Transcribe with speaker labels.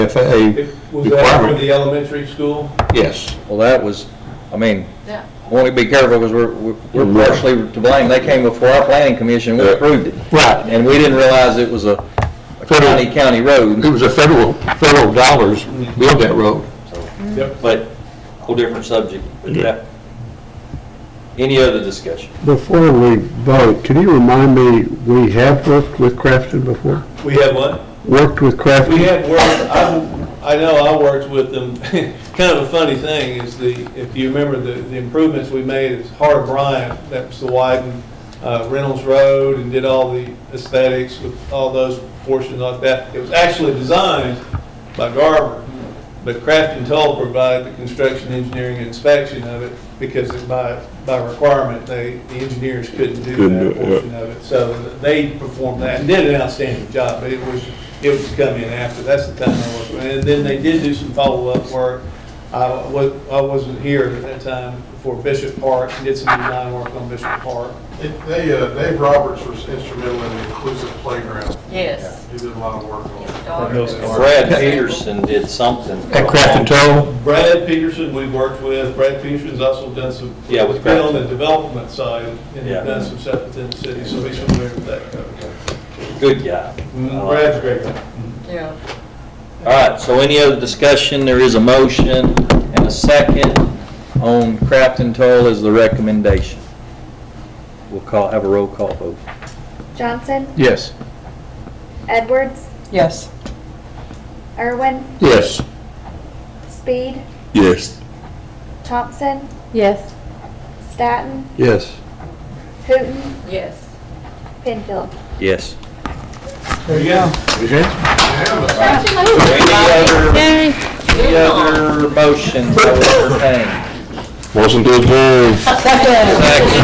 Speaker 1: FAA,
Speaker 2: It- Was that for
Speaker 1: Requirement.
Speaker 2: the elementary school?
Speaker 1: yes.
Speaker 3: Well, that was, I mean,
Speaker 4: Yeah.
Speaker 3: want to be careful because we're, we're
Speaker 1: Right.
Speaker 3: partially to blame. They came before our planning commission, we
Speaker 1: Yeah.
Speaker 3: approved it.
Speaker 1: Right.
Speaker 3: And we didn't realize it was a a county, county
Speaker 1: It
Speaker 3: road.
Speaker 1: was a federal, federal dollars built that road.
Speaker 2: Yep.
Speaker 5: But, whole different subject, but that, any other discussion?
Speaker 6: Before we vote, can you remind me, we have worked with Crafton before?
Speaker 2: We had one?
Speaker 6: Worked with
Speaker 2: We
Speaker 6: Crafton?
Speaker 2: had worked, I, I know I worked with them, kind of a funny thing is the, if you remember the, the improvements we made, it's Hart Bryant, that was the widen uh, Reynolds Road and did all the aesthetics with all those portions like that. It was actually designed by Garber, but Crafton Toll provided the construction engineering inspection of it because it by, by requirement, they, the engineers couldn't do
Speaker 1: Couldn't
Speaker 2: that
Speaker 1: do it, yeah.
Speaker 2: portion of it. So they performed that and did an outstanding job, but it was, it was coming in after, that's the time I was. And then they did do some follow-up work. I was, I wasn't here at that time for Bishop Park, did some design work on Bishop Park.
Speaker 7: It- They, uh, Dave Roberts was instrumental in the inclusive playground.
Speaker 4: Yes.
Speaker 7: He did a lot of work
Speaker 4: Your
Speaker 7: on it.
Speaker 4: daughter
Speaker 2: Those
Speaker 4: is-
Speaker 2: are-
Speaker 5: Brad Peterson did something. for
Speaker 1: At
Speaker 5: a
Speaker 1: Crafton
Speaker 5: long-
Speaker 1: Toll,
Speaker 2: Brad Peterson, we worked with, Brad Peterson's also done some.
Speaker 5: Yeah, with
Speaker 2: Been
Speaker 5: Brad.
Speaker 2: on the development side and
Speaker 5: Yeah.
Speaker 2: done some stuff within the city, so he's familiar with that.
Speaker 5: Good guy.
Speaker 2: Mm,
Speaker 5: I like
Speaker 2: Brad's a
Speaker 5: it.
Speaker 2: great guy.
Speaker 4: Yeah.
Speaker 5: All right, so any other discussion? There is a motion and a second on Crafton Toll is the recommendation. We'll call, have a roll call vote.
Speaker 8: Johnson,
Speaker 1: yes.
Speaker 8: Edwards,
Speaker 4: Yes.
Speaker 8: Irwin,
Speaker 1: Yes.
Speaker 8: Speed,
Speaker 1: Yes.
Speaker 8: Thompson,
Speaker 4: Yes.
Speaker 8: Staton,
Speaker 1: Yes.
Speaker 8: Hooton,
Speaker 4: Yes.
Speaker 8: Penfield.
Speaker 5: Yes.
Speaker 2: There you go.
Speaker 5: Any other, any other motions that were entertained?
Speaker 1: Motion to adjourn.
Speaker 5: Second.